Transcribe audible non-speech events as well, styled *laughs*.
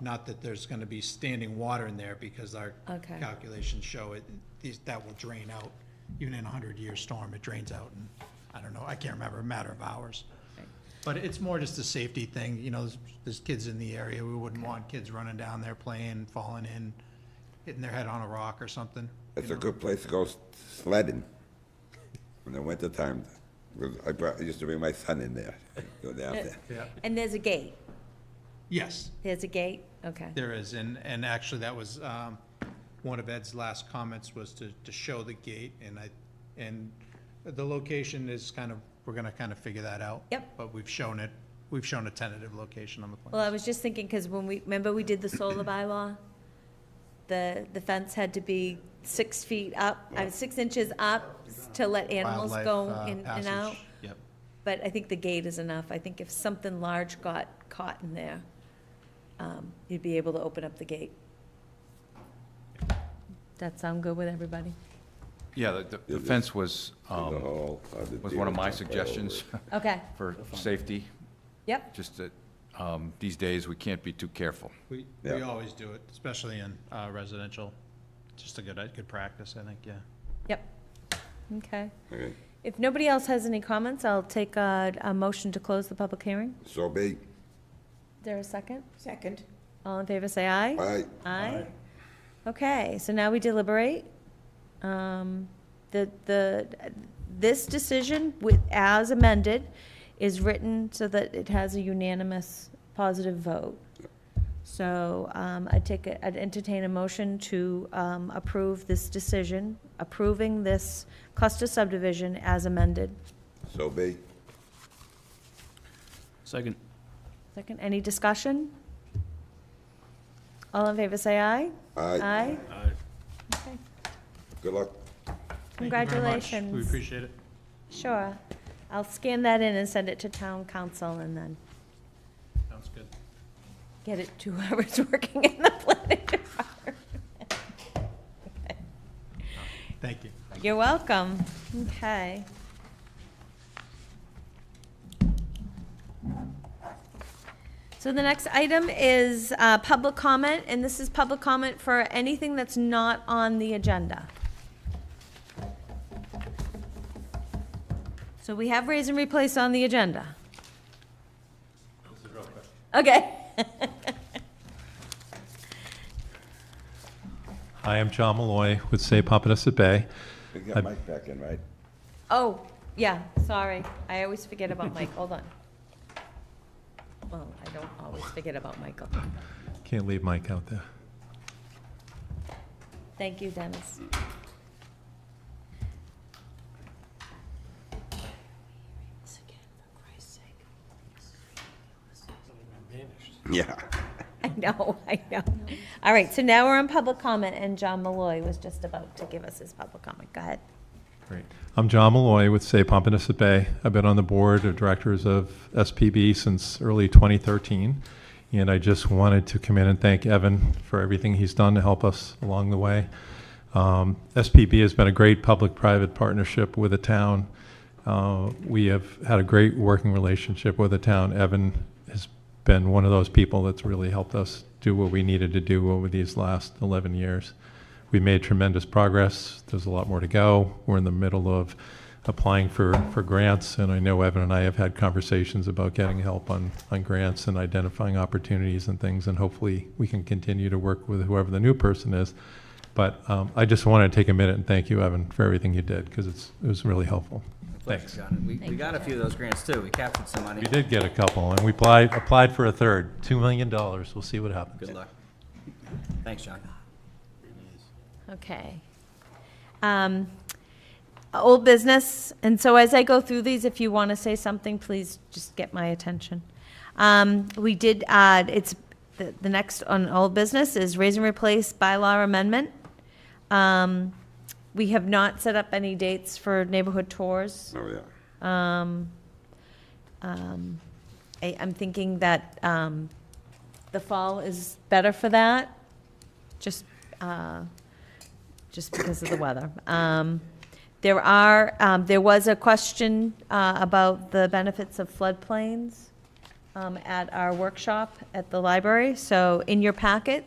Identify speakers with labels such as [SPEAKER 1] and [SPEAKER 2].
[SPEAKER 1] Not that there's gonna be standing water in there, because our
[SPEAKER 2] Okay.
[SPEAKER 1] calculations show it, these- that will drain out. Even in a hundred-year storm, it drains out in, I don't know, I can't remember, a matter of hours.
[SPEAKER 2] Right.
[SPEAKER 1] But it's more just a safety thing, you know, there's, there's kids in the area, we wouldn't want kids running down there playing, falling in, hitting their head on a rock or something.
[SPEAKER 3] It's a good place to go s- sledding in the wintertime. 'Cause I brought, I used to bring my son in there, go down
[SPEAKER 4] *laughs*
[SPEAKER 3] there.
[SPEAKER 1] Yeah.
[SPEAKER 2] And there's a gate?
[SPEAKER 1] Yes,
[SPEAKER 2] There's a gate? Okay.
[SPEAKER 1] there is, and, and actually, that was, um, one of Ed's last comments was to, to show the gate, and I, and the location is kind of, we're gonna kind of figure that out.
[SPEAKER 2] Yep.
[SPEAKER 1] But we've shown it, we've shown a tentative location on the plan.
[SPEAKER 2] Well, I was just thinking, because when we, remember we did the solar bylaw? The, the fence had to be six feet up, I mean, six inches up to let animals
[SPEAKER 1] Wildlife,
[SPEAKER 2] go
[SPEAKER 1] uh,
[SPEAKER 2] in and
[SPEAKER 1] passage.
[SPEAKER 2] out.
[SPEAKER 1] Yep.
[SPEAKER 2] But I think the gate is enough. I think if something large got caught in there, um, you'd be able to open up the gate. That sound good with everybody?
[SPEAKER 4] Yeah, the- the- the fence was,
[SPEAKER 3] The
[SPEAKER 4] um,
[SPEAKER 3] whole of the
[SPEAKER 4] was one of
[SPEAKER 3] deer
[SPEAKER 4] my
[SPEAKER 3] jump all
[SPEAKER 4] suggestions *laughs*
[SPEAKER 2] Okay,
[SPEAKER 4] for safety,
[SPEAKER 2] yep,
[SPEAKER 4] just that um, these days, we can't be too careful.
[SPEAKER 1] We,
[SPEAKER 3] Yeah.
[SPEAKER 1] we always do it, especially in, uh, residential, just a good, a good practice, I think, yeah.
[SPEAKER 2] yep. Okay.
[SPEAKER 3] over it. Okay.
[SPEAKER 2] If nobody else has any comments, I'll take a, a motion to close the public hearing.
[SPEAKER 3] So be,
[SPEAKER 2] Is there a second?
[SPEAKER 5] Second.
[SPEAKER 2] All in favor, say aye.
[SPEAKER 3] aye,
[SPEAKER 2] Aye. Okay, so now we deliberate. Um, The, the, this decision with, as amended, is written so that it has a unanimous positive vote. So um, I'd take, a- I'd entertain a motion to um, approve this decision, approving this cluster subdivision as amended.
[SPEAKER 3] so be.
[SPEAKER 6] Second.
[SPEAKER 2] Second, any discussion? All in favor, say aye.
[SPEAKER 3] Aye,
[SPEAKER 2] Aye. Okay.
[SPEAKER 3] good luck.
[SPEAKER 1] Thank you very much. We
[SPEAKER 2] Congratulations.
[SPEAKER 1] appreciate it.
[SPEAKER 2] Sure. I'll scan that in and send it to town council and then
[SPEAKER 1] Sounds good.
[SPEAKER 2] get it to *laughs* whoever's working in the planning department.
[SPEAKER 1] Thank you.
[SPEAKER 2] You're welcome. Okay. So the next item is uh, public comment, and this is public comment for anything that's not on the agenda. So we have raise and replace on the agenda. Okay.
[SPEAKER 7] Hi, I'm John Malloy with Save Pompanesset Bay.
[SPEAKER 3] We
[SPEAKER 7] I-
[SPEAKER 3] got Mike back in, right?
[SPEAKER 2] Oh, yeah, sorry. I always forget about Mike. Hold on. Well, I don't always forget about Michael.
[SPEAKER 7] Can't leave Mike out there.
[SPEAKER 2] Thank you, Dennis.
[SPEAKER 3] Yeah.
[SPEAKER 2] I know, I know. All right, so now we're on public comment, and John Malloy was just about to give us his public comment. Go ahead.
[SPEAKER 7] Great. I'm John Malloy with Save Pompanesset Bay. I've been on the board of directors of SPB since early 2013, and I just wanted to come in and thank Evan for everything he's done to help us along the way. Um, SPB has been a great public-private partnership with the town. Uh, We have had a great working relationship with the town. Evan has been one of those people that's really helped us do what we needed to do over these last 11 years. We made tremendous progress. There's a lot more to go. We're in the middle of applying for, for grants, and I know Evan and I have had conversations about getting help on, on grants and identifying opportunities and things, and hopefully we can continue to work with whoever the new person is. But um, I just want to take a minute and thank you, Evan, for everything you did, because it's, it was really helpful. Thanks.
[SPEAKER 6] We, we got a few of those grants too. We captured some money.
[SPEAKER 7] We did get a couple, and we applied, applied for a third, $2 million. We'll see what happens.
[SPEAKER 6] Good luck. Thanks, John.
[SPEAKER 2] Okay. Um, Old business, and so as I go through these, if you want to say something, please just get my attention. Um, We did, uh, it's, the the next on old business is raise and replace bylaw amendment. Um, We have not set up any dates for neighborhood tours.
[SPEAKER 3] Oh, yeah.
[SPEAKER 2] Um, um, I, I'm thinking that um, the fall is better for that, just, uh, just because of the weather. Um, There are, um, there was a question uh, about the benefits of floodplains um, at our workshop at the library. So in your packet,